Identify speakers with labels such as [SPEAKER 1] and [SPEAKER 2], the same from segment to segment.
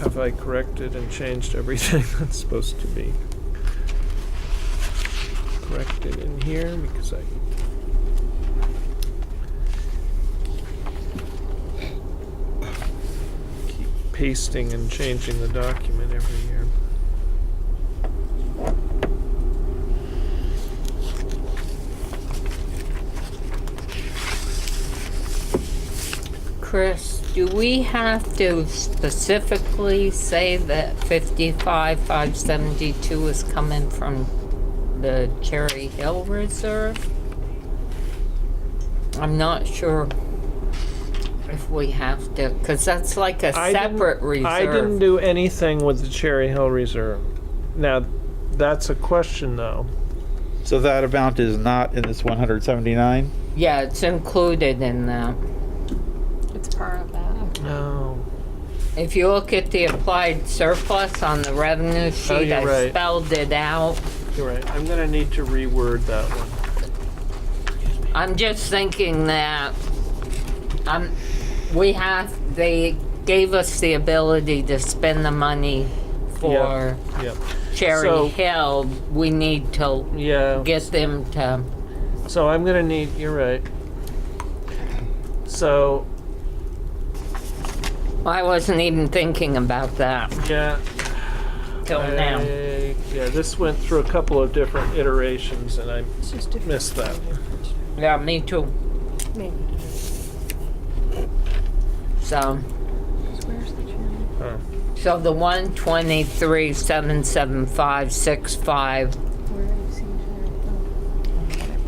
[SPEAKER 1] have I corrected and changed everything that's supposed to be corrected in here? Because I keep pasting and changing the document every year.
[SPEAKER 2] Chris, do we have to specifically say that fifty-five, five seventy-two is coming from the Cherry Hill Reserve? I'm not sure if we have to, cause that's like a
[SPEAKER 1] I didn't-
[SPEAKER 2] separate reserve.
[SPEAKER 1] I didn't do anything with the Cherry Hill Reserve. Now, that's a question though.
[SPEAKER 3] So that amount is not in this 179?
[SPEAKER 2] Yeah, it's included in that.
[SPEAKER 4] It's part of that.
[SPEAKER 2] Oh.
[SPEAKER 1] No.
[SPEAKER 2] If you look at the applied surplus on the revenue sheet,
[SPEAKER 1] Oh, you're
[SPEAKER 2] I
[SPEAKER 1] right.
[SPEAKER 2] spelled it out.
[SPEAKER 1] You're right. I'm gonna need to reword that one.
[SPEAKER 2] I'm just thinking that, um, we have, they gave us the ability to spend the money for
[SPEAKER 1] Yep. So-
[SPEAKER 2] Cherry Hill. We need to
[SPEAKER 1] Yeah.
[SPEAKER 2] get them to,
[SPEAKER 1] So I'm gonna need. You're right. So
[SPEAKER 2] I wasn't even thinking about that
[SPEAKER 1] yeah. Uh,
[SPEAKER 2] till now.
[SPEAKER 1] I- yeah. This went through a couple of different iterations, and I
[SPEAKER 4] It's just different.
[SPEAKER 1] missed that. one.
[SPEAKER 2] Yeah, me too,
[SPEAKER 4] Maybe.
[SPEAKER 2] so.
[SPEAKER 4] Where's the chair?
[SPEAKER 1] Huh.
[SPEAKER 2] So the one twenty-three, seven, seven, five, six, five
[SPEAKER 4] Where are you seeing Oh, chair?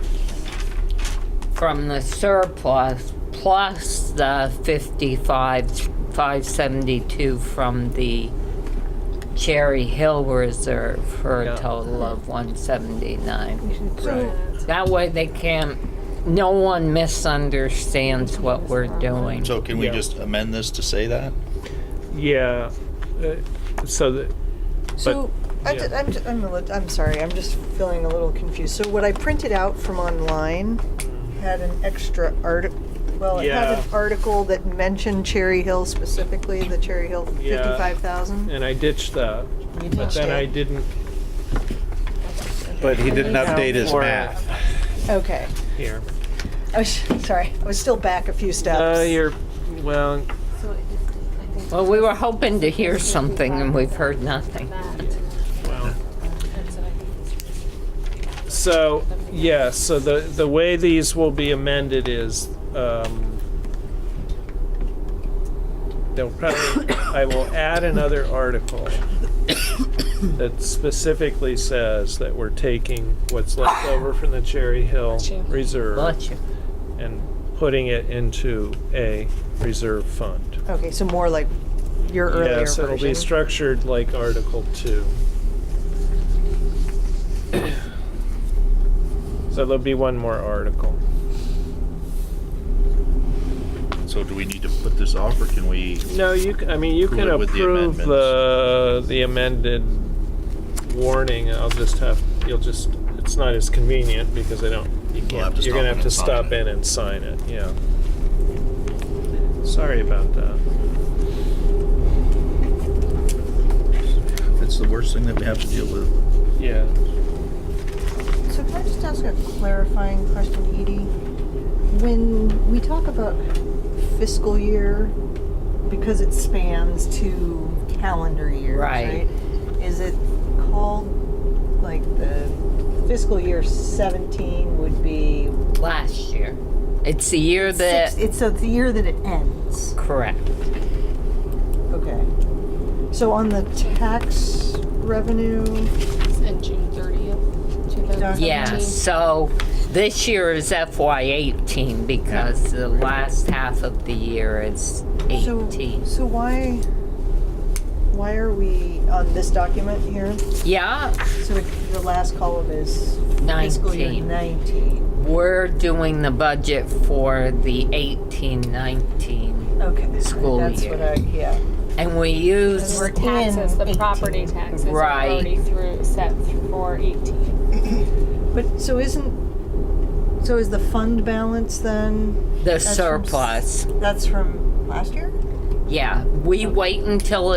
[SPEAKER 2] from the surplus plus the fifty-five, five seventy-two from the Cherry Hill Reserve for
[SPEAKER 1] Yeah.
[SPEAKER 2] a total of one
[SPEAKER 4] Oh,
[SPEAKER 2] seventy-nine.
[SPEAKER 4] we should.
[SPEAKER 1] Right.
[SPEAKER 2] That way they can't, no one misunderstands what we're doing.
[SPEAKER 5] So can we
[SPEAKER 1] Yeah.
[SPEAKER 5] just amend this to say that?
[SPEAKER 1] Yeah. Uh, so that.
[SPEAKER 6] So, I
[SPEAKER 1] yeah.
[SPEAKER 6] did- I'm, ju- I'm, a lit- I'm sorry, I'm just feeling a little confused. So what I printed out from online had an extra article, well, it had an
[SPEAKER 1] Yeah.
[SPEAKER 6] article that mentioned Cherry Hill specifically, the Cherry Hill
[SPEAKER 1] Yeah.
[SPEAKER 6] 55,000.
[SPEAKER 1] And I ditched that, but
[SPEAKER 6] You ditched
[SPEAKER 1] then I
[SPEAKER 6] it.
[SPEAKER 1] didn't.
[SPEAKER 3] But he didn't update his
[SPEAKER 1] for it.
[SPEAKER 3] math.
[SPEAKER 6] Okay.
[SPEAKER 1] Here.
[SPEAKER 6] I was, sorry, I was still back a few steps.
[SPEAKER 1] Uh, you're. Well,
[SPEAKER 4] So it just, I think
[SPEAKER 2] Well, we were hoping to hear something and we've heard nothing.
[SPEAKER 4] that.
[SPEAKER 1] well.
[SPEAKER 4] That's what I think.
[SPEAKER 1] So, yeah, so the, the way these will be amended is, um, they'll probably, I will add another article that specifically says that we're taking what's left over from the Cherry Hill
[SPEAKER 4] Bless you.
[SPEAKER 1] Reserve
[SPEAKER 2] Bless you.
[SPEAKER 1] and putting it into a reserve fund.
[SPEAKER 6] Okay, so more like your earlier
[SPEAKER 1] Yes, it'll be
[SPEAKER 6] version.
[SPEAKER 1] structured like Article Two. So there'll be one more article.
[SPEAKER 5] So do we need to put this off or can we?
[SPEAKER 1] No, you, c- I mean, you can
[SPEAKER 5] With- with the
[SPEAKER 1] approve the, the amended warning, I'll just have, you'll just, it's not as convenient because I don't, you
[SPEAKER 5] have
[SPEAKER 1] can't,
[SPEAKER 5] to
[SPEAKER 1] you're gonna
[SPEAKER 5] stop
[SPEAKER 1] have to
[SPEAKER 5] in and sign
[SPEAKER 1] stop
[SPEAKER 5] it.
[SPEAKER 1] in and sign it, yeah. Sorry about that.
[SPEAKER 5] It's the worst thing that we have to deal with.
[SPEAKER 1] Yeah.
[SPEAKER 6] So can I just ask a clarifying question, Edie? When we talk about fiscal year, because it spans two calendar years,
[SPEAKER 2] Right.
[SPEAKER 6] right? Is it called, like, the fiscal year 17 would be?
[SPEAKER 2] Last year. It's the year that.
[SPEAKER 6] six- It's, so it's the year that it ends.
[SPEAKER 2] Correct.
[SPEAKER 6] Okay. So on the tax revenue,
[SPEAKER 4] And June thirtieth, two thousand seventeen.
[SPEAKER 2] Yeah, so this year is FY eighteen because the last half of the year is
[SPEAKER 6] so,
[SPEAKER 2] eighteen.
[SPEAKER 6] so why, why are we on this document here?
[SPEAKER 2] Yeah,
[SPEAKER 6] So it- the last column is fiscal year
[SPEAKER 2] nineteen.
[SPEAKER 6] 19.
[SPEAKER 2] We're doing the budget for the eighteen, nineteen.
[SPEAKER 6] Okay.
[SPEAKER 2] School
[SPEAKER 6] That's
[SPEAKER 2] year.
[SPEAKER 6] what I, yeah.
[SPEAKER 2] And we
[SPEAKER 4] Because
[SPEAKER 2] use,
[SPEAKER 4] we're taxes, the
[SPEAKER 6] in
[SPEAKER 4] property
[SPEAKER 6] 18.
[SPEAKER 4] taxes are
[SPEAKER 2] Right.
[SPEAKER 4] already through, set for eighteen.
[SPEAKER 6] But, so isn't, so is the fund balance then,
[SPEAKER 2] the
[SPEAKER 6] That's from s-
[SPEAKER 2] surplus.
[SPEAKER 6] that's from last year?
[SPEAKER 2] Yeah, we wait until